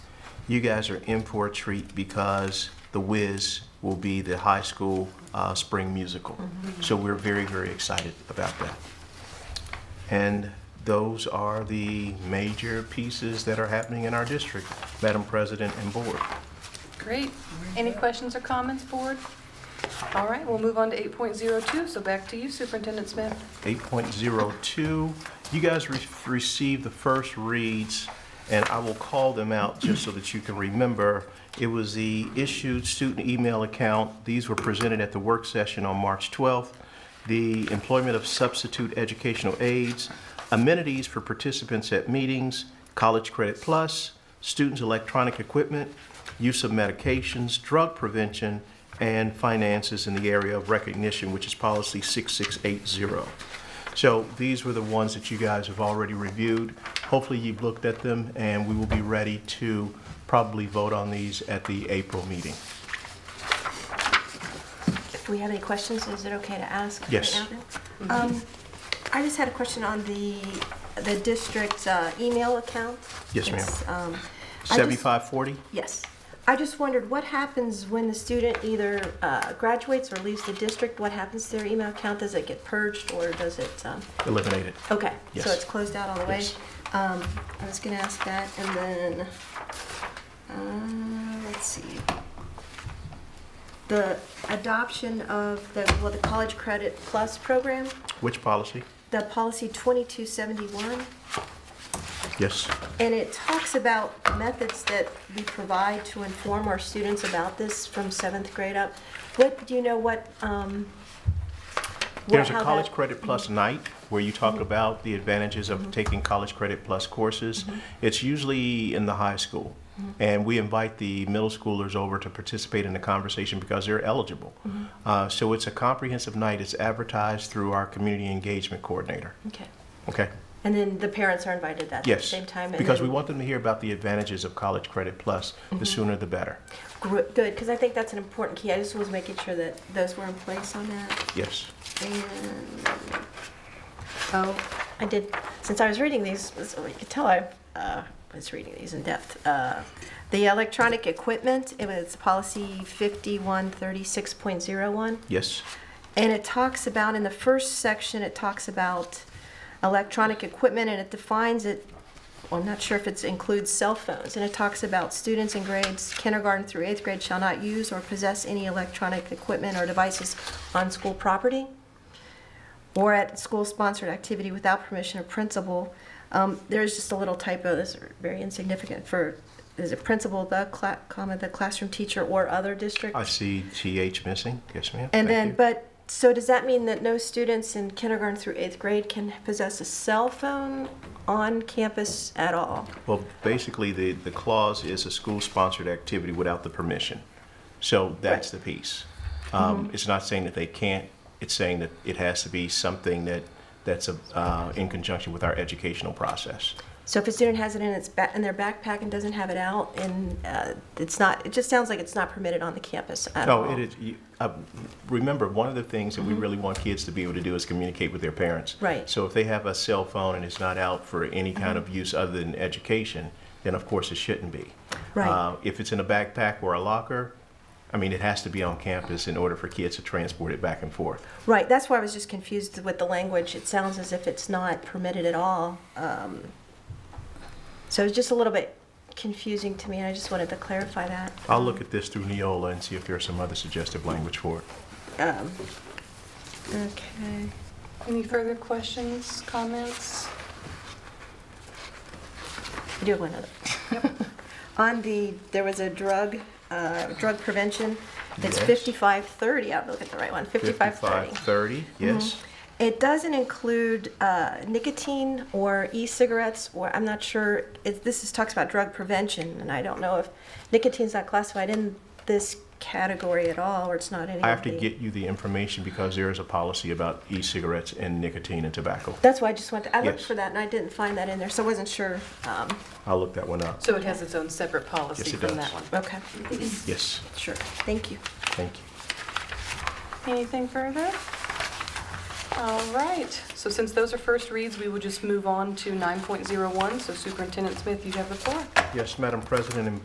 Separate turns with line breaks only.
you guys are in for a treat because The Wiz will be the high school uh, spring musical. So we're very, very excited about that. And those are the major pieces that are happening in our district, Madam President and Board.
Great. Any questions or comments, board? All right, we'll move on to 8.02, so back to you, Superintendent Smith.
8.02, you guys re- received the first reads, and I will call them out just so that you can remember. It was the issued student email account. These were presented at the work session on March 12th. The employment of substitute educational aides, amenities for participants at meetings, College Credit Plus, students' electronic equipment, use of medications, drug prevention, and finances in the area of recognition, which is policy 6680. So these were the ones that you guys have already reviewed. Hopefully, you've looked at them, and we will be ready to probably vote on these at the April meeting.
If we have any questions, is it okay to ask? right
Yes.
now? Um, I just had a question on the, the district's uh, email account.
Yes, ma'am.
It's, um, I just-
7540?
Yes. I just wondered, what happens when the student either uh, graduates or leaves the district? What happens to their email account? Does it get purged or does it, um,
Eliminated.
okay,
Yes.
so it's closed out all the way?
Yes.
Um, I was gonna ask that, and then, uh, let's see. The adoption of the, well, the College Credit Plus program,
Which policy?
the policy 2271,
Yes.
and it talks about methods that we provide to inform our students about this from seventh grade up. What, do you know what, um? what-
There's a
how that- Mm-hmm.
College Credit Plus night where you talk about the advantages of taking College Credit Plus courses.
Mm-hmm.
It's usually in the high school. And we invite the middle schoolers over to participate in the conversation because they're eligible.
Mm-hmm.
Uh, So it's a comprehensive night. It's advertised through our community engagement coordinator.
Okay,
Okay?
and then the parents are invited that at the
Yes.
same time? and
Because we
then- Mm-hmm.
want them to hear about the advantages of College Credit Plus. The sooner the better.
Gr- Good, because I think that's an important key. I just was making sure that those were in place on that.
Yes.
And
Oh,
I did, since I was reading these, so you could tell I uh, was reading these in depth. Uh, The electronic equipment, it was policy 5136.01.
Yes.
And it talks about, in the first section, it talks about electronic equipment, and it defines it, well, I'm not sure if it includes cell phones, and it talks about students in grades kindergarten through eighth grade shall not use or possess any electronic equipment or devices on school property or at school-sponsored activity without permission of principal. Um, There's just a little typo, this is very insignificant, for, is it principal, the, cla- comma, the classroom teacher, or other district?
I see TH missing. Yes, ma'am. Thank
And then,
you.
but, so does that mean that no students in kindergarten through eighth grade can possess a cell phone on campus at all?
Well, basically, the, the clause is a school-sponsored activity without the permission. So that's the piece. Um, It's not saying that they can't, it's saying that it has to be something that, that's a, uh, in conjunction with our educational process.
So if a student has it in its, ba- in their backpack and doesn't have it out, and uh, it's not, it just sounds like it's not permitted on the campus at all?
No, it is, you- uh, remember, one of the things that we really want kids to be able to do is communicate with their parents.
Right.
So if they have a cell phone and it's not out for any kind of use other than education, then of course it shouldn't be.
Right.
Uh, If it's in a backpack or a locker, I mean, it has to be on campus in order for kids to transport it back and forth.
Right, that's why I was just confused with the language. It sounds as if it's not permitted at all. Um, So it's just a little bit confusing to me, and I just wanted to clarify that.
I'll look at this through Neola and see if there's some other suggestive language for it.
Um, Okay.
any further questions, comments?
I do have one other. On the, there was a drug, uh, drug prevention, it's
Yes.
5530, I'm looking at the right one, 5530.
5530, yes.
It doesn't include uh, nicotine or e-cigarettes, or, I'm not sure, it- this is, talks about drug prevention, and I don't know if nicotine's not classified in this category at all, or it's not any of
I have to
the-
get you the information because there is a policy about e-cigarettes and nicotine and tobacco.
That's why I just went, to- I looked
Yes.
for that, and I didn't find that in there, so I wasn't sure. um,
I'll look that one up.
So it has its own separate policy
Yes, it
from
does.
that one?
Okay,
Yes,
sure, thank you.
thank you.
Anything further? All right, so since those are first reads, we will just move on to 9.01, so Superintendent Smith, you have the floor.
Yes, Madam President and